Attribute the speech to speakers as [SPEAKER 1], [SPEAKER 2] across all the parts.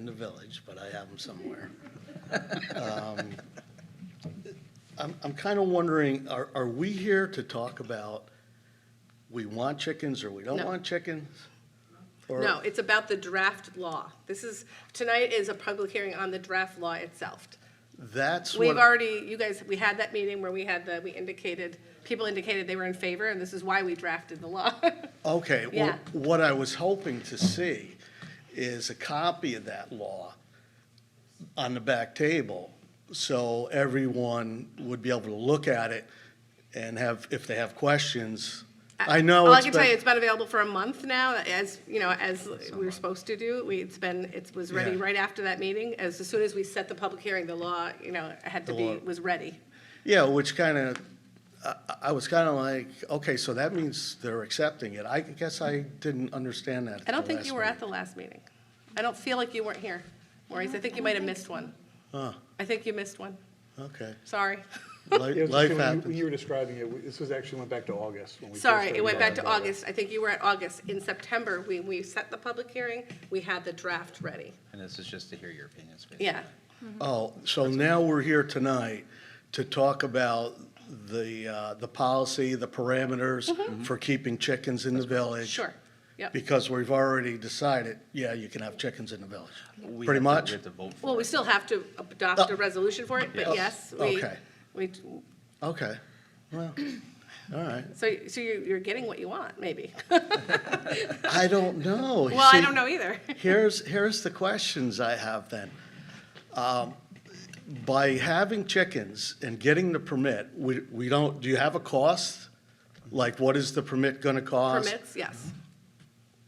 [SPEAKER 1] in the village, but I have them somewhere. Um, I'm, I'm kind of wondering, are, are we here to talk about, we want chickens or we don't
[SPEAKER 2] No.
[SPEAKER 1] want chickens? Or-
[SPEAKER 2] No, it's about the draft law. This is, tonight is a public hearing on the draft law itself.
[SPEAKER 1] That's what.
[SPEAKER 2] We've already, you guys, we had that meeting where we had the, we indicated, people indicated they were in favor, and this is why we drafted the law.
[SPEAKER 1] Okay, well,
[SPEAKER 2] Yeah.
[SPEAKER 1] what I was hoping to see is a copy of that law on the back table, so everyone would be able to look at it and have, if they have questions. I know
[SPEAKER 2] All I
[SPEAKER 1] it's
[SPEAKER 2] can tell you,
[SPEAKER 1] been,
[SPEAKER 2] it's been available for a month now, as, you know, as we were supposed to do. We, it's been, it was ready
[SPEAKER 1] Yeah.
[SPEAKER 2] right after that meeting. As, as soon as we set the public hearing, the law, you know, had to
[SPEAKER 1] The
[SPEAKER 2] be,
[SPEAKER 1] law.
[SPEAKER 2] was ready.
[SPEAKER 1] yeah, which kind of, I, I was kind of like, okay, so that means they're accepting it. I guess I didn't understand that at
[SPEAKER 2] I don't
[SPEAKER 1] the
[SPEAKER 2] think
[SPEAKER 1] last
[SPEAKER 2] you were at
[SPEAKER 1] meeting.
[SPEAKER 2] the last meeting. I don't feel like you weren't here, Maurice. I think you might have missed one. I think you missed one.
[SPEAKER 1] Okay,
[SPEAKER 2] Sorry.
[SPEAKER 1] Li- life
[SPEAKER 3] When
[SPEAKER 1] happens.
[SPEAKER 3] you were describing it, we- this was actually went back to August when we. first
[SPEAKER 2] Sorry, it
[SPEAKER 3] started
[SPEAKER 2] went back to
[SPEAKER 3] talking about it.
[SPEAKER 2] August. I think you were at August. In September, we, we set the public hearing, we had the draft ready.
[SPEAKER 4] And this is just to hear your opinions. basically.
[SPEAKER 2] Yeah.
[SPEAKER 1] Oh, so now we're here tonight to talk about the, uh, the policy, the parameters for keeping chickens in the village.
[SPEAKER 2] Mm-hmm. Sure. Yep.
[SPEAKER 1] Because we've already decided, yeah, you can have chickens in the village,
[SPEAKER 4] We
[SPEAKER 1] pretty
[SPEAKER 4] have to-
[SPEAKER 1] much?
[SPEAKER 4] We have to vote for
[SPEAKER 2] Well, we
[SPEAKER 4] it.
[SPEAKER 2] still have to adopt a resolution for it, but yes, we,
[SPEAKER 1] Okay.
[SPEAKER 2] we,
[SPEAKER 1] Okay, well, all right.
[SPEAKER 2] so, so you're, you're getting what you want, maybe.
[SPEAKER 1] I don't know.
[SPEAKER 2] Well, I
[SPEAKER 1] See,
[SPEAKER 2] don't know either.
[SPEAKER 1] Here's, here's the questions I have then. Um, By having chickens and getting the permit, we, we don't, do you have a cost? Like, what is the permit gonna cost?
[SPEAKER 2] Permits, yes.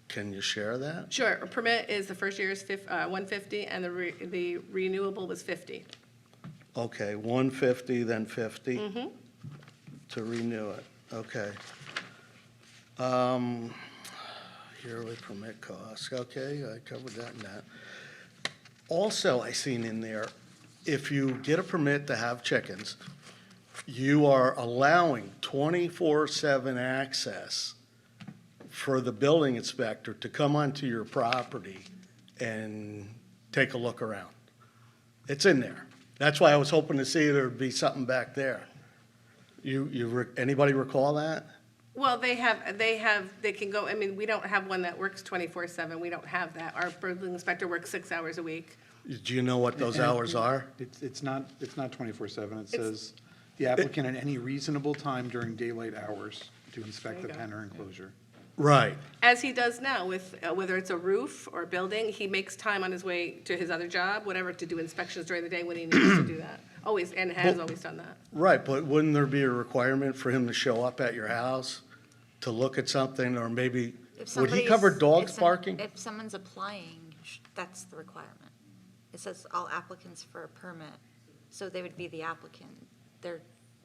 [SPEAKER 1] Can you share that?
[SPEAKER 2] Sure, a permit is, the first year is fif, uh, one fifty, and the re, the renewable was fifty.
[SPEAKER 1] Okay, one fifty, then 50 To renew it, okay. Um, yearly permit costs, okay, I covered that and that. Also, I seen in there, if you get a permit to have chickens, you are allowing twenty-four seven access for the building inspector to come onto your property and take a look around. It's in there. That's why I was hoping to see there'd be something back there. You, you, re- anybody recall that?
[SPEAKER 2] Well, they have, they have, they can go, I mean, we don't have one that works twenty-four seven, we don't have that. Our building inspector works six hours a week.
[SPEAKER 1] Do you know what those hours are?
[SPEAKER 3] It's, it's not, it's not twenty-four seven. It
[SPEAKER 2] It's-
[SPEAKER 3] says, the applicant at any reasonable time during daylight hours to inspect
[SPEAKER 2] There
[SPEAKER 3] the
[SPEAKER 2] you go.
[SPEAKER 3] pen or enclosure.
[SPEAKER 1] Right.
[SPEAKER 2] As he does now with, uh, whether it's a roof or a building, he makes time on his way to his other job, whatever, to do inspections during the day when he needs to do that. Always, and has always done that.
[SPEAKER 1] Right, but wouldn't there be a requirement for him to show up at your house to look at something, or maybe,
[SPEAKER 5] If
[SPEAKER 1] would he
[SPEAKER 5] somebody's-
[SPEAKER 1] cover dogs
[SPEAKER 5] if some-
[SPEAKER 1] barking?
[SPEAKER 5] If someone's applying, sh- that's the requirement. It says all applicants for a permit, so they would be the applicant. They're,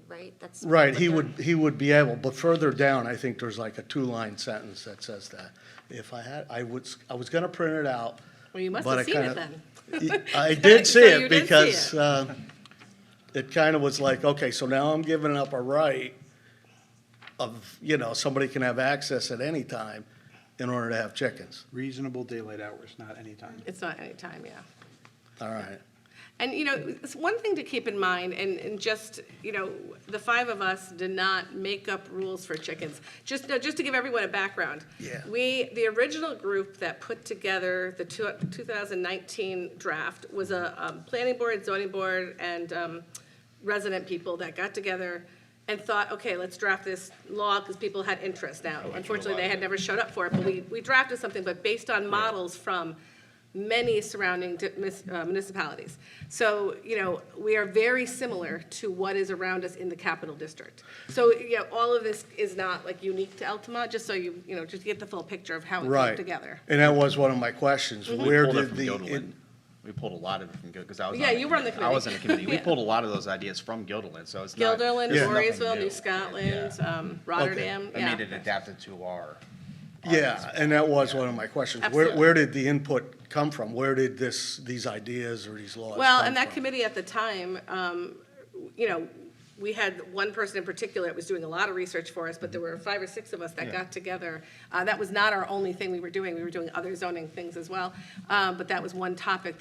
[SPEAKER 5] right? That's.
[SPEAKER 1] Right,
[SPEAKER 5] what
[SPEAKER 1] he
[SPEAKER 5] they're-
[SPEAKER 1] would, he would be able, but further down, I think there's like a two-line sentence that says that. If I had, I would, I was gonna print it out.
[SPEAKER 2] Well, you must
[SPEAKER 1] but
[SPEAKER 2] have
[SPEAKER 1] I
[SPEAKER 2] seen it
[SPEAKER 1] kinda-
[SPEAKER 2] then.
[SPEAKER 1] I did see
[SPEAKER 2] So
[SPEAKER 1] it
[SPEAKER 2] you did see
[SPEAKER 1] because
[SPEAKER 2] it.
[SPEAKER 1] uh, it kind of was like, okay, so now I'm giving up a right of, you know, somebody can have access at any time in order to have chickens.
[SPEAKER 3] Reasonable daylight hours, not any time.
[SPEAKER 2] It's not any time, yeah.
[SPEAKER 1] All right.
[SPEAKER 2] And, you know, it's one thing to keep in mind, and, and just, you know, the five of us did not make up rules for chickens. Just, no, just to give everyone a background.
[SPEAKER 1] Yeah.
[SPEAKER 2] We, the original group that put together the two, two thousand nineteen draft was a, um, planning board, zoning board, and, um, resident people that got together and thought, okay, let's draft this law, because people had interest now. Unfortunately, they had never showed up for it, but we, we drafted something, but based on models from many surrounding di- mis- uh, municipalities. So, you know, we are very similar to what is around us in the capital district. So, you know, all of this is not like unique to Altamont, just so you, you know, just get the full picture of how it came
[SPEAKER 1] Right.
[SPEAKER 2] together.
[SPEAKER 1] And that was one of my questions.
[SPEAKER 4] We
[SPEAKER 1] Where
[SPEAKER 4] pulled it
[SPEAKER 1] did
[SPEAKER 4] from
[SPEAKER 1] the,
[SPEAKER 4] Yodeland.
[SPEAKER 1] in-
[SPEAKER 4] We pulled a lot of it from, because I was.
[SPEAKER 2] Yeah,
[SPEAKER 4] on
[SPEAKER 2] you were on the
[SPEAKER 4] I was on the
[SPEAKER 2] committee.
[SPEAKER 4] committee. We
[SPEAKER 2] Yeah.
[SPEAKER 4] pulled a lot of those ideas from Gilderland, so it's not.
[SPEAKER 2] Gilderland,
[SPEAKER 4] it's nothing
[SPEAKER 2] Voorheesville, New Scotland,
[SPEAKER 4] Yeah.
[SPEAKER 2] um, Rotterdam,
[SPEAKER 4] I mean,
[SPEAKER 2] yeah.
[SPEAKER 4] it adapted to our. our
[SPEAKER 1] yeah, and that was one of my questions. Where,
[SPEAKER 2] Absolutely.
[SPEAKER 1] where did the input come from? Where did this, these ideas or these laws come from?
[SPEAKER 2] Well, and that committee at the time, um, you know, we had one person in particular that was doing a lot of research for us, but there were five or six of us that got together. Uh, That was not our only thing we were doing, we were doing other zoning things as well, Uh, but that was one topic